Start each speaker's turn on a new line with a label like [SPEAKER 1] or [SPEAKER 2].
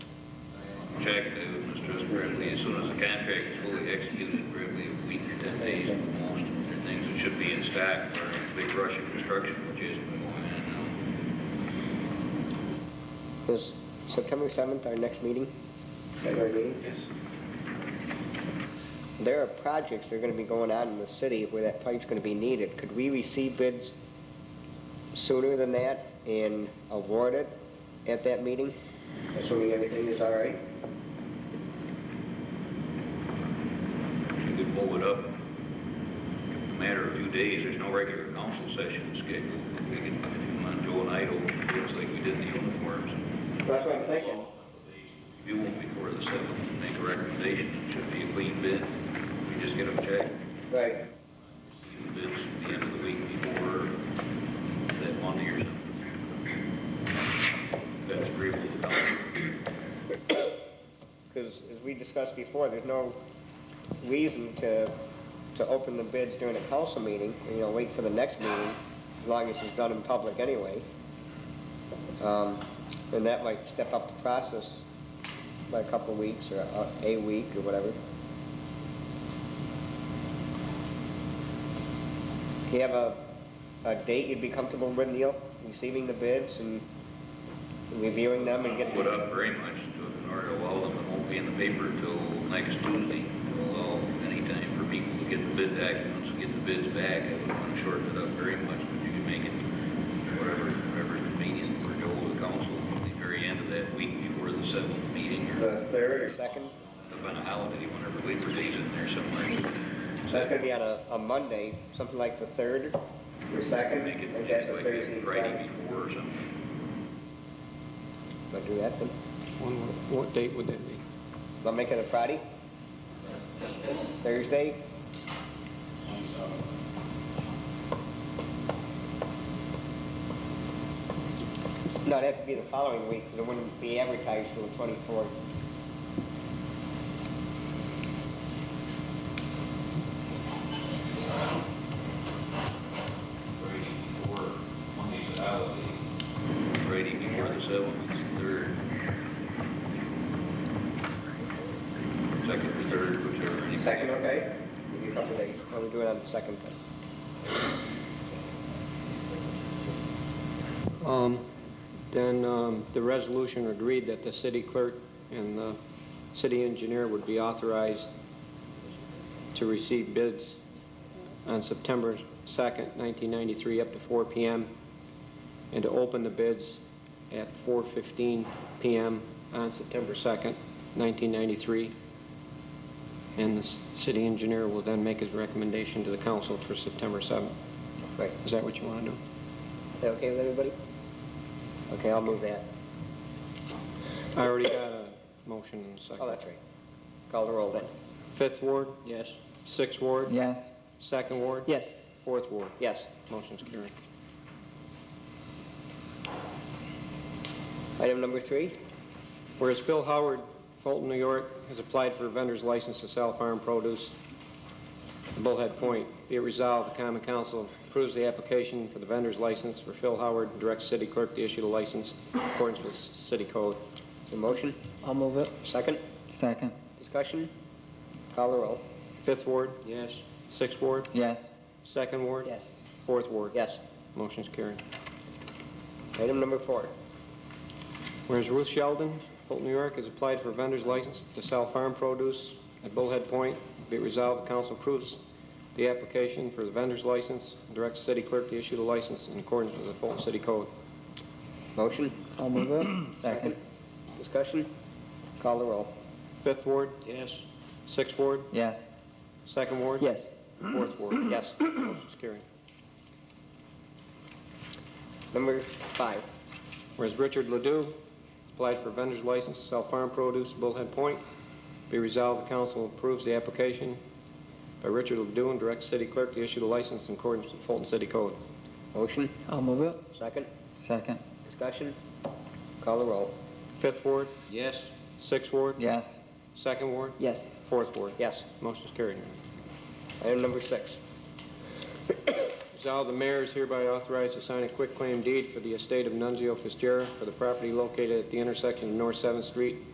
[SPEAKER 1] contract to Mr. Trustworthy as soon as the contract is fully executed, probably a week or ten days at the most. There are things that should be in stock for a big rush of construction, which is going on now.
[SPEAKER 2] Is September 7th our next meeting? February meeting?
[SPEAKER 1] Yes.
[SPEAKER 2] There are projects that are going to be going on in the city where that pipe's going to be needed. Could we receive bids sooner than that and award it at that meeting? Assuming everything is all right?
[SPEAKER 1] You could pull it up in a matter of a few days. There's no regular council session scheduled. We could, if Joe and I, don't, just like we did the uniforms.
[SPEAKER 2] That's what I'm thinking.
[SPEAKER 1] You won't be for the seventh, make a recommendation, it should be a clean bid, we just get them checked,
[SPEAKER 2] Right.
[SPEAKER 1] clean bids at the end of the week before that Monday or something. That's agreeable to council.
[SPEAKER 2] Because as we discussed before, there's no reason to, to open the bids during a council meeting, you know, wait for the next meeting, as long as it's done in public anyway. Um, And that might step up the process by a couple of weeks or a- a week or whatever. Do you have a, a date you'd be comfortable with, Neil, receiving the bids and reviewing them and getting?
[SPEAKER 1] Put up very much to- in order to allow them, it won't be in the paper till next Tuesday, to allow any time for people to get the bid back, once we get the bids back, I would want to shorten it up very much, but you can make it whatever, whatever is convenient for Joe or the council, at the very end of that week before the seventh meeting, or
[SPEAKER 2] The third or second?
[SPEAKER 1] up on a holiday, whenever Labor Day's in there somewhere.
[SPEAKER 2] So that's gonna be on a, a Monday, something like the third? Or
[SPEAKER 1] Make it just like that Friday before or something.
[SPEAKER 2] I'll do that then.
[SPEAKER 3] When, what date would that be?
[SPEAKER 2] I'll make it a Friday? Thursday? No, it'd have to be the following week, because it wouldn't be advertised till the twenty-fourth.
[SPEAKER 1] Friday before, Monday's a holiday. Friday before the seventh, is the third. Second or third, whichever.
[SPEAKER 2] okay? Give you a couple days. Well, we do it on the second then.
[SPEAKER 3] Um, Then um, the resolution agreed that the city clerk and the city engineer would be authorized to receive bids on September 2nd, 1993, up to 4 PM, and to open the bids at 4:15 PM on September 2nd, 1993. And the s- city engineer will then make his recommendation to the council for September 7th.
[SPEAKER 2] Right.
[SPEAKER 3] Is that what you want to do?
[SPEAKER 2] Is that okay with everybody? Okay, I'll move that.
[SPEAKER 3] I already got a motion and a second.
[SPEAKER 2] Oh, that's right. Call the roll then.
[SPEAKER 3] Fifth ward,
[SPEAKER 2] Yes.
[SPEAKER 3] sixth ward,
[SPEAKER 4] Yes.
[SPEAKER 3] second ward.
[SPEAKER 2] Yes.
[SPEAKER 3] Fourth ward.
[SPEAKER 2] Yes.
[SPEAKER 3] Motion's carried.
[SPEAKER 2] Item number three,
[SPEAKER 3] Whereas Phil Howard, Fulton, New York, has applied for a vendor's license to sell farm produce in Bullhead Point, be it resolved, the common council approves the application for the vendor's license for Phil Howard and directs city clerk to issue the license in accordance with city code.
[SPEAKER 2] is there a motion?
[SPEAKER 4] I'll move it.
[SPEAKER 2] Second,
[SPEAKER 4] Second.
[SPEAKER 2] discussion? Call the roll.
[SPEAKER 3] Fifth ward,
[SPEAKER 2] Yes.
[SPEAKER 3] sixth ward,
[SPEAKER 4] Yes.
[SPEAKER 3] second ward.
[SPEAKER 2] Yes.
[SPEAKER 3] Fourth ward.
[SPEAKER 2] Yes.
[SPEAKER 3] Motion's carried.
[SPEAKER 2] Item number four,
[SPEAKER 3] Whereas Ruth Sheldon, Fulton, New York, has applied for a vendor's license to sell farm produce at Bullhead Point. Be it resolved, the council approves the application for the vendor's license and directs the city clerk to issue the license in accordance with the Fulton City Code.
[SPEAKER 2] motion?
[SPEAKER 4] I'll move it. Second.
[SPEAKER 2] Discussion? Call the roll.
[SPEAKER 3] Fifth Ward,
[SPEAKER 2] Yes.
[SPEAKER 3] Sixth Ward,
[SPEAKER 4] Yes.
[SPEAKER 3] Second Ward.
[SPEAKER 4] Yes.
[SPEAKER 3] Fourth Ward.
[SPEAKER 2] Yes.
[SPEAKER 3] Motion's carried.
[SPEAKER 2] Number five,
[SPEAKER 3] Whereas Richard Ledoux applied for vendor's license to sell farm produce at Bullhead Point. Be resolved, the council approves the application by Richard Ledoux and directs city clerk to issue the license in accordance with the Fulton City Code.
[SPEAKER 2] motion?
[SPEAKER 4] I'll move it.
[SPEAKER 2] Second,
[SPEAKER 4] Second.
[SPEAKER 2] discussion? Call the roll.
[SPEAKER 3] Fifth Ward,
[SPEAKER 1] Yes.
[SPEAKER 3] Sixth Ward?
[SPEAKER 4] Yes.
[SPEAKER 3] Second Ward?
[SPEAKER 2] Yes.
[SPEAKER 3] Fourth Ward?
[SPEAKER 2] Yes.
[SPEAKER 3] Motion's carried.
[SPEAKER 2] Item number six,
[SPEAKER 3] Resolved, the mayor is hereby authorized to sign a quitclaim deed for the estate of Nunzio Fitzgerald for the property located at the intersection of North Seventh Street